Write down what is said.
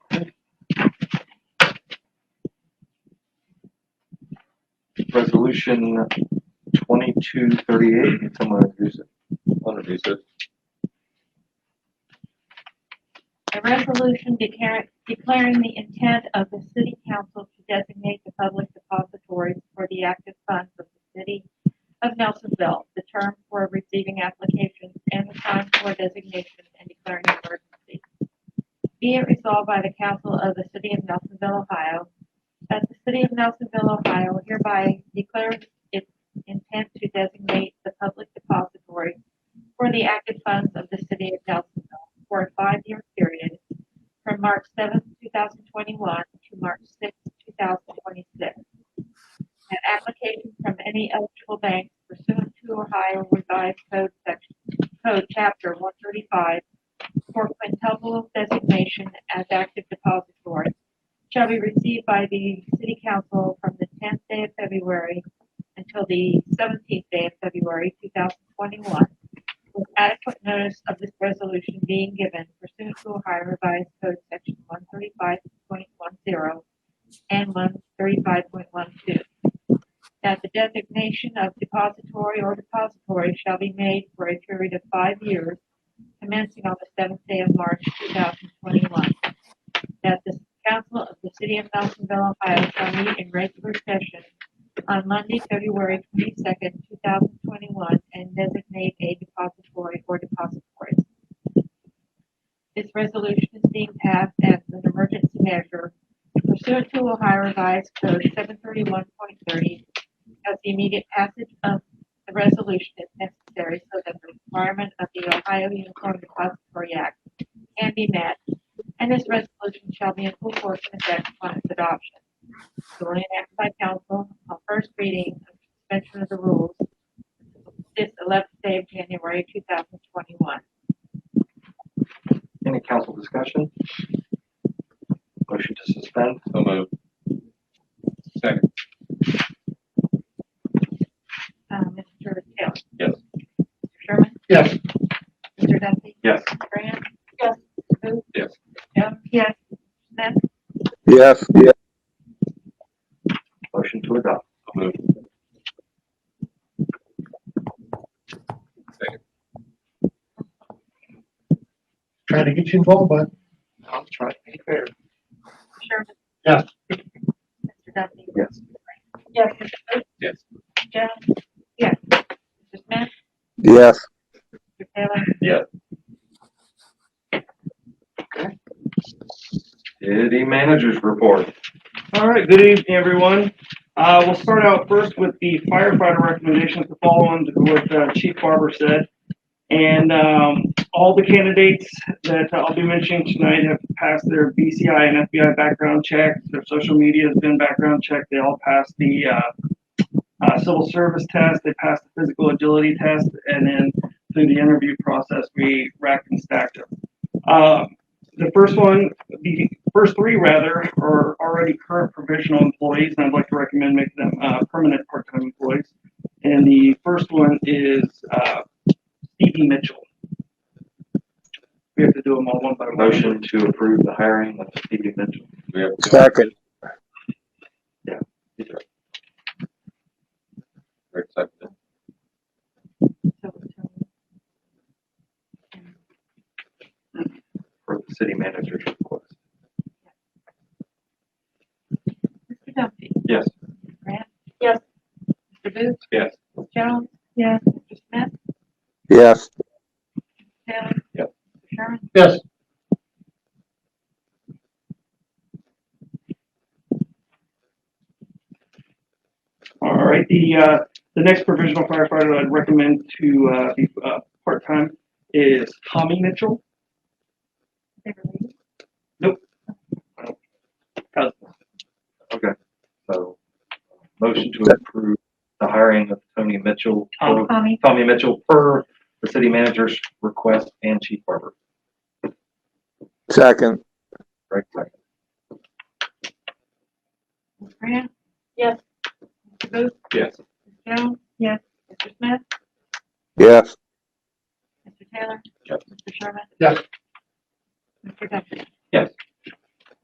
resolution twenty-two thirty-eight, can someone introduce it? I'll introduce it. A resolution declaring, declaring the intent of the city council to designate the public depositories for the active funds of the city of Nelsonville, the term for receiving applications and the time for designation and declaring an emergency. Be it resolved by the council of the city of Nelsonville, Ohio, that the city of Nelsonville, Ohio hereby declares its intent to designate the public depository for the active funds of the city of Nelsonville for a five-year period from March seventh, two thousand twenty-one to March sixth, two thousand twenty-six. And application from any eligible bank pursuant to Ohio Revised Code Section, Code Chapter one thirty-five for quintuple designation as active depository shall be received by the city council from the tenth day of February until the seventeenth day of February, two thousand twenty-one with adequate notice of this resolution being given pursuant to Ohio Revised Code Section one thirty-five point one zero and one thirty-five point one two. That the designation of depository or depository shall be made for a period of five years commencing on the seventh day of March two thousand twenty-one. That the council of the city of Nelsonville, Ohio shall meet in regular session on Monday, February twenty-second, two thousand twenty-one, and designate a depository or depositories. This resolution is being passed as an emergency measure pursuant to Ohio Revised Code seven thirty-one point thirty, as the immediate passage of the resolution is necessary so that the requirement of the Ohio Uniform Depository Act can be met, and this resolution shall be in full force and effect upon its adoption duly enacted by council on first reading of suspension of the rules this eleventh day of January two thousand twenty-one. Any council discussion? Motion to suspend? So moved. Second. Uh, Mr. Taylor? Yes. Mr. Sherman? Yes. Mr. Duffy? Yes. Mr. Grant? Yes. Booth? Yes. Jones? Yes. Smith? Yes, yes, Motion to adopt? So moved. Second. trying to get you involved, but I'll try to be fair. Sherman? Yes. Mr. Duffy? Yes. Yes. Mr. Booth? Yes. Jones? Yes. Mr. Smith? yes, Mr. Taylor? City managers report. All right, good evening, everyone. Uh, we'll start out first with the firefighter recommendations to follow on to what uh, Chief Barber said. And, um, all the candidates that I'll be mentioning tonight have passed their BCI and FBI background check. Their social media has been background checked. They all passed the, uh, uh, civil service test. They passed the physical agility test. And then through the interview process, we racked and stacked them. Uh, the first one the first three rather are already current provisional employees, and I'd like to recommend making them uh, permanent part-time employees. And the first one is uh, Stevie Mitchell. We have to do them all one by one. Motion to approve the hiring of Stevie Mitchell. We have a second, direct second. So, so- for the city manager's report. Mr. Duffy? Yes. Grant? Yes. Mr. Booth? Yes. Ms. Jones? Yes. Mr. Smith? yes, Taylor? Yes. Mr. Sherman? yes, All right, the, uh, the next provisional firefighter I'd recommend to uh, be uh, part-time is Tommy Mitchell. Uh, Okay, so, motion to approve the hiring of Tony Mitchell, Tom. Tommy? Tommy Mitchell per the city manager's request and Chief Barber. second, Right, second. Ms. Grant? Yes. Mr. Booth? Yes. Ms. Jones? Yes. Mr. Smith? yes, Mr. Taylor? Yes. Mr. Sherman? Yes. Mr. Duffy? Yes.